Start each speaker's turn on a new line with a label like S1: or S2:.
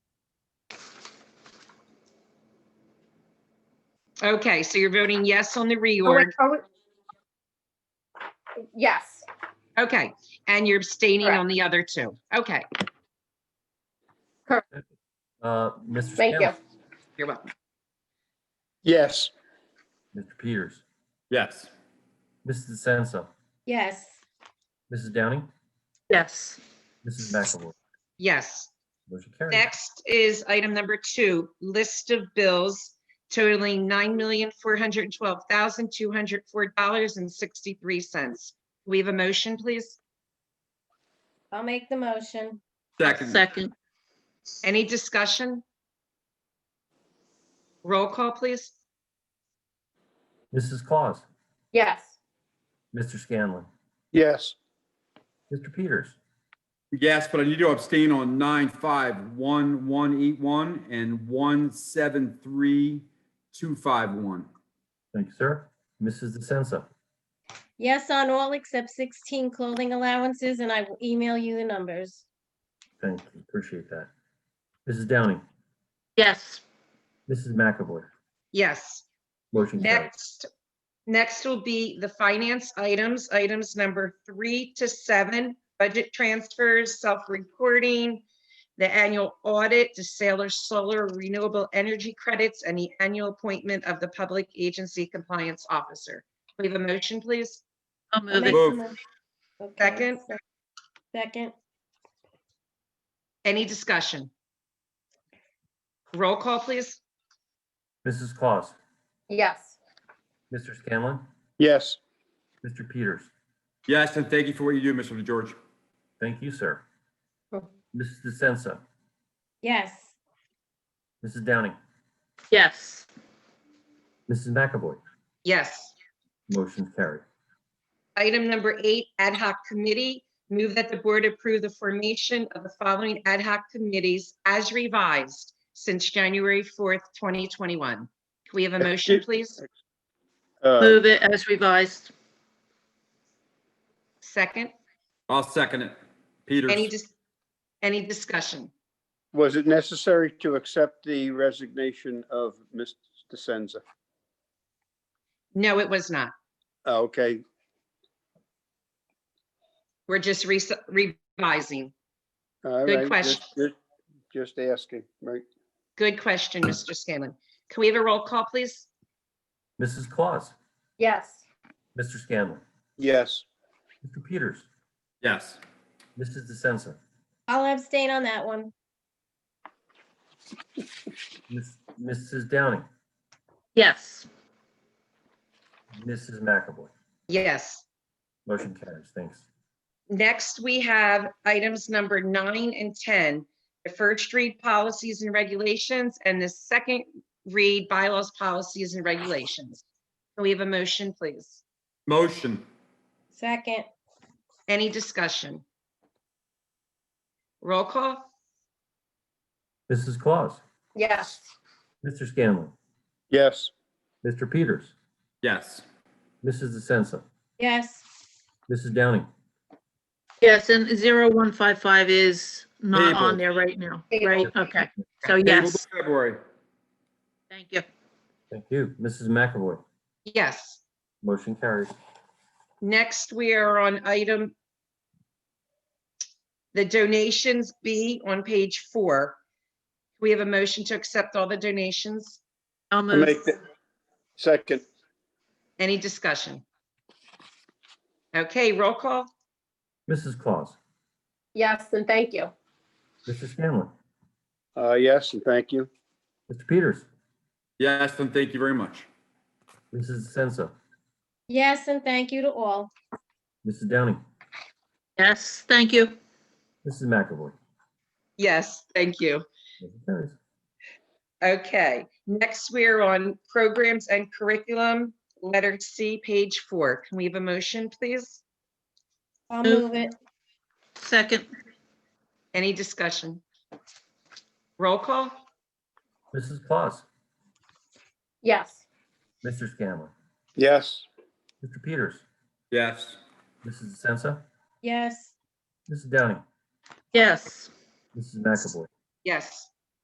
S1: Okay, so you're voting yes on the
S2: Oh, wait,
S1: reorg.
S2: oh, wait. Yes,
S1: Okay, and you're abstaining
S2: Correct.
S1: on the other two. Okay,
S3: Uh, Mr.
S2: thank you.
S3: Scanlon,
S1: you're welcome.
S4: Yes.
S3: Mr. Peters,
S5: Yes.
S3: Mrs. DeSenza,
S2: Yes.
S3: Mrs. Downing,
S6: yes.
S3: Mrs. McAvoy.
S1: Yes.
S3: Motion carries.
S1: Next is item number two, list of bills totaling nine million, four hundred and twelve thousand, two hundred four dollars and sixty-three cents. We have a motion, please?
S2: I'll make the motion.
S5: Second,
S6: Second,
S1: Any discussion? Roll call, please?
S3: Mrs. Claus,
S2: Yes.
S3: Mr. Scanlon,
S4: Yes.
S3: Mr. Peters,
S5: yes, but I need to abstain on nine, five, one, one, eight, one, and one, seven, three, two, five, one.
S3: thank you, sir. Mrs. DeSenza,
S7: Yes, on all except 16 clothing allowances, and I will email you the numbers.
S3: thank you, appreciate that. Mrs. Downing,
S6: yes.
S3: Mrs. McAvoy,
S1: Yes.
S3: motion carries.
S1: Next, next will be the finance items, items number three to seven, budget transfers, self-reporting, the annual audit, the Sailor Solar Renewable Energy Credits, and the annual appointment of the Public Agency Compliance Officer. We have a motion, please?
S6: I'll
S7: I'll
S6: move
S7: make
S6: it.
S7: the
S5: Move.
S7: motion. Okay,
S1: Second.
S7: so- Second,
S1: Any discussion? Roll call, please?
S3: Mrs. Claus,
S2: Yes.
S3: Mr. Scanlon,
S4: Yes.
S3: Mr. Peters,
S5: Yes, and thank you for what you do, Mr. DeGeorge.
S3: thank you, sir.
S2: Oh.
S3: Mrs. DeSenza,
S7: yes,
S3: Mrs. Downing,
S6: Yes.
S3: Mrs. McAvoy,
S1: Yes.
S3: motion carried.
S1: Item number eight, ad hoc committee. Move that the board approve the formation of the following ad hoc committees as revised since January 4th, 2021. Can we have a motion, please?
S4: Uh,
S6: Move it as revised.
S1: Second,
S5: I'll second it.
S1: any,
S5: Peters,
S1: dis- any discussion?
S4: Was it necessary to accept the resignation of Ms. DeSenza?
S1: No, it was not.
S4: Oh, Okay,
S1: We're just re- revising.
S4: all right.
S1: Good
S4: just-
S1: question.
S4: just- Just asking, right?
S1: Good question, Mr. Scanlon. Can we have a roll call, please?
S3: Mrs. Claus,
S2: Yes.
S3: Mr. Scanlon,
S4: Yes.
S3: Mr. Peters,
S5: yes.
S3: Mrs. DeSenza,
S7: I'll abstain on that one.
S3: Miss- Mrs. Downing,
S6: Yes.
S3: Mrs. McAvoy.
S1: Yes.
S3: Motion carries. Thanks.
S1: Next, we have items number nine and 10, the first read policies and regulations and the second read bylaws, policies and regulations. Can we have a motion, please?
S5: Motion,
S7: Second,
S1: Any discussion? Roll call?
S3: Mrs. Claus,
S2: Yes.
S3: Mr. Scanlon,
S4: Yes.
S3: Mr. Peters,
S5: yes.
S3: Mrs. DeSenza,
S7: yes,
S3: Mrs. Downing,
S6: Yes, and 0155 is not on
S5: Tabled.
S6: there right now, right?
S1: Tabled.
S6: Okay, so
S5: Table
S6: yes,
S5: to February,
S6: thank you.
S3: thank you. Mrs. McAvoy,
S1: Yes.
S3: motion carries.
S1: Next, we are on item the donations B on page four. We have a motion to accept all the donations.
S6: I'll
S4: I'll
S6: move.
S4: make the second.
S1: Any discussion? Okay, roll call?
S3: Mrs. Claus,
S2: Yes, and thank you.
S3: Mr. Scanlon,
S4: Uh, yes, and thank you.
S3: Mr. Peters,
S5: yes, and thank you very much.
S3: Mrs. DeSenza,
S7: yes, and thank you to all.
S3: Mrs. Downing,
S6: Yes, thank you.
S3: Mrs. McAvoy.
S1: Yes, thank you.
S3: Motion carries.
S1: Okay, next we're on programs and curriculum, letter C, page four. Can we have a motion, please?
S7: I'll
S6: Move.
S7: move it.
S6: Second,
S1: Any discussion? Roll call?
S3: Mrs. Claus,
S2: Yes.
S3: Mr. Scanlon,
S4: Yes.
S3: Mr. Peters,
S5: Yes,
S3: Mrs. DeSenza,
S7: Yes,
S3: Mrs. Downing,
S6: yes.
S3: Mrs. McAvoy.
S1: Yes.